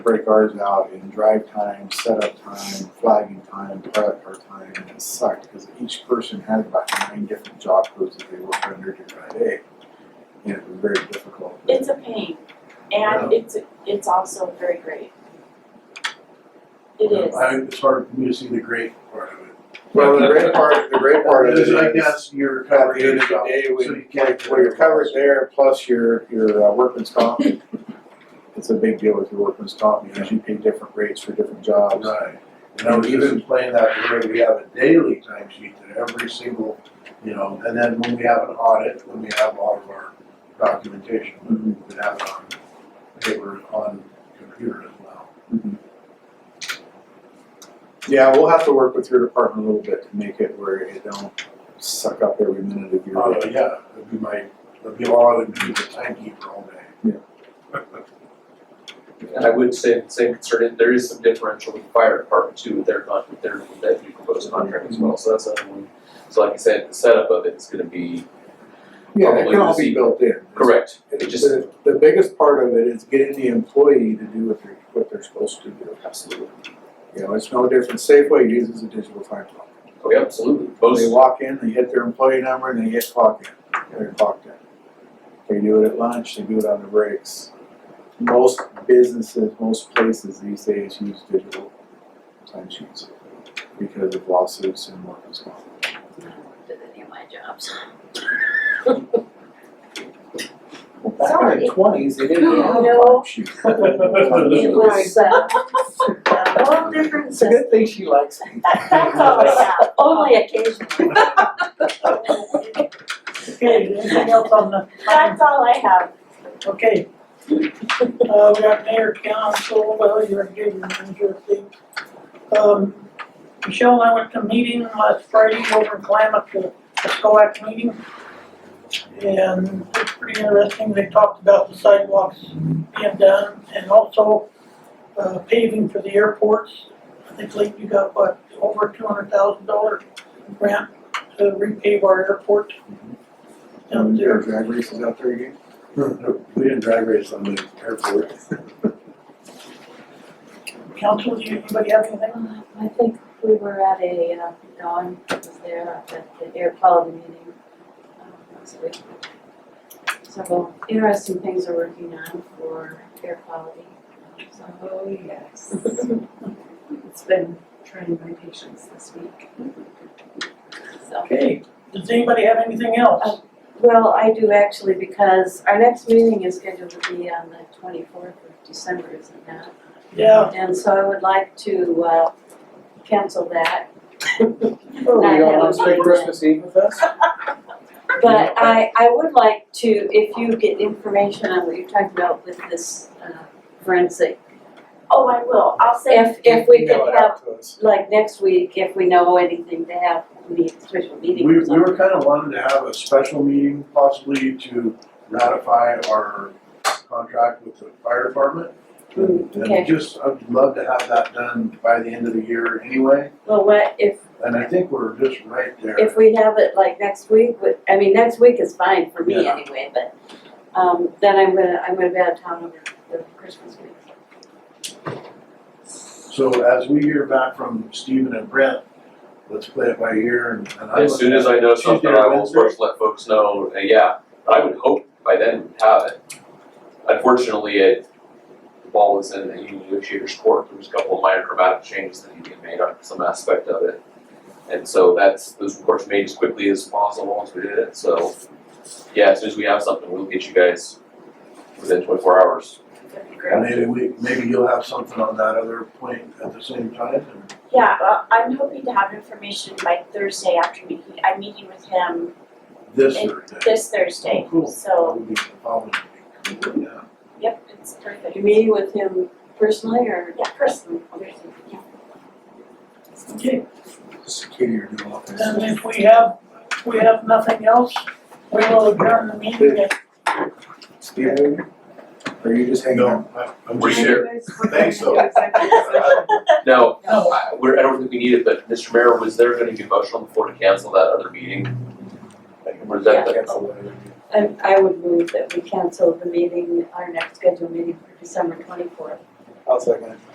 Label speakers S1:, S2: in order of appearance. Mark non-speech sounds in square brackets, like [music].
S1: break ours out in drive time, setup time, flagging time, credit card time, and it sucked because each person had about nine different job codes that they worked under during the day. And it was very difficult.
S2: It's a pain, and it's, it's also very great. It is.
S3: [laughs]
S4: I, it's hard for me to see the great part of it.
S1: Well, the great part, the great part is.
S4: Because I guess you're
S1: At
S4: covering
S1: the end
S4: your
S1: of the
S4: job,
S1: day,
S4: so you
S1: when,
S4: can't.
S1: like, when you're covered there, plus your, your uh, workman's comp, it's a big deal with your workman's comp, because you pay different rates for different jobs.
S4: Right, and I was just explaining that where we have a daily timesheet that every single, you know, and then when we have an audit, when we have all of our documentation, we
S1: Mhm.
S4: have it on paper, on computer as well.
S1: Mm-hmm. Yeah, we'll have to work with your department a little bit to make it where it don't suck up every minute of your
S4: Oh, yeah, that'd be my, that'd be all, I'd be the timekeeper all day.
S5: And I would say, same concern, there is some differential with the fire department too, with their con, with their, that new proposed contract as well, so that's another one. So like I said, the setup of it's gonna be
S1: Yeah, it can all be
S5: Probably the-
S1: built in.
S5: correct,
S1: It's-
S5: it
S1: it's-
S5: just,
S1: The, the biggest part of it is getting the employee to do what they're, what they're supposed to do.
S5: absolutely,
S1: You know, it's no different, Safeway uses a digital time clock.
S5: oh, yeah, absolutely,
S1: They
S5: most,
S1: walk in, they hit their employee number, and they hit clock in, they're clocked in. They do it at lunch, they do it on the breaks. Most businesses, most places these days use digital timesheets because of lawsuits and workers' comp.
S3: did any of my jobs.
S1: Well, back in the
S2: Sorry.
S1: twenties, they didn't
S3: [laughs]
S1: have
S2: No.
S1: timesheets.
S3: It [laughs] was, uh, a whole different
S1: It's a
S3: system.
S1: good thing she likes
S2: [laughs]
S1: me.
S3: That's all, yeah, only occasionally.
S6: Okay, anything else on the,
S2: That's all I have.
S6: okay. Uh, we got mayor, council, well, you're getting your thing. Um, Michelle and I went to a meeting last Friday over in Klamath, the SCOAC meeting. And it's pretty interesting, they talked about the sidewalks being done and also, uh, paving for the airports. I think Lake, you got what, over two hundred thousand dollar grant to repave our airport down there.
S1: Your drag races out there again? Hmm.
S4: We didn't drag race on the airport.
S6: Council, do you, anybody have anything?
S3: Uh, I think we were at a, uh, Dawn was there at the- the air quality meeting, um, last week. Several interesting things are working on for air quality, so.
S7: Oh, yes. It's been trying my patience this week.
S3: so.
S6: Okay, does anybody have anything else?
S3: Well, I do actually, because our next meeting is scheduled to be on the twenty-fourth of December, isn't it not?
S6: Yeah,
S3: And so I would like to, uh, cancel that,
S1: Oh,
S3: I
S1: we don't
S3: haven't
S1: want to spend
S3: been.
S1: Christmas Eve with us?
S3: But I, I would like to, if you get information on what you're talking about with this uh, forensic,
S2: Oh, I will, I'll say,
S3: if, if we
S1: Email
S3: could
S1: it
S3: have,
S1: out to us.
S3: like next week, if we know anything to have, the special
S4: We,
S3: meeting
S4: we
S3: or something.
S4: were kind of wanting to have a special meeting possibly to ratify our contract with the fire department.
S3: Mm, okay.
S4: And just, I'd love to have that done by the end of the year anyway,
S3: Well, what, if,
S4: and I think we're just right there.
S3: if we have it like next week, would, I mean, next week is fine for me
S4: Yeah.
S3: anyway, but, um, then I'm gonna, I'm gonna be out of town over the Christmas week.
S4: So as we hear back from Stephen and Brent, let's play it by ear and, and I.
S5: as soon as I know
S4: Tuesday or
S5: something, I will
S4: Wednesday?
S5: first let folks know, Uh, yeah, I would hope by then we'd have it. Unfortunately, it, the ball was in the union negotiator's court, there was a couple of minor dramatic changes that need to be made on some aspect of it. And so that's, those reports made as quickly as possible once we did it, so, yeah, as soon as we have something, we'll get you guys within twenty-four hours.
S2: that'd be
S4: And
S2: great.
S4: Maybe we, maybe you'll have something on that other point at the same time and.
S2: Yeah, well, I'm hoping to have information by Thursday afternoon, He- I'm meeting with him
S4: This
S2: And
S4: Thursday.
S2: this Thursday,
S1: Oh,
S4: Cool.
S2: so,
S4: We'll be the following week. Yeah.
S2: yep, it's perfect.
S3: You meeting with him personally or?
S2: Yeah, personally, yeah.
S6: okay,
S1: Security or new office.
S6: then if we have, if we have nothing else, we will adjourn the meeting at
S1: Steven, are you just hanging out?
S4: No, I, I'm
S5: We're
S4: just [laughs]
S5: here.
S4: Thanks, though.
S5: No, I, we're, I don't think we need it, but Mr. Mayor, was there gonna be a motion on the floor to cancel that other meeting? Or is that the-
S3: I, I would move that we cancel the meeting, our next scheduled meeting for December twenty-fourth.
S4: I'll second it.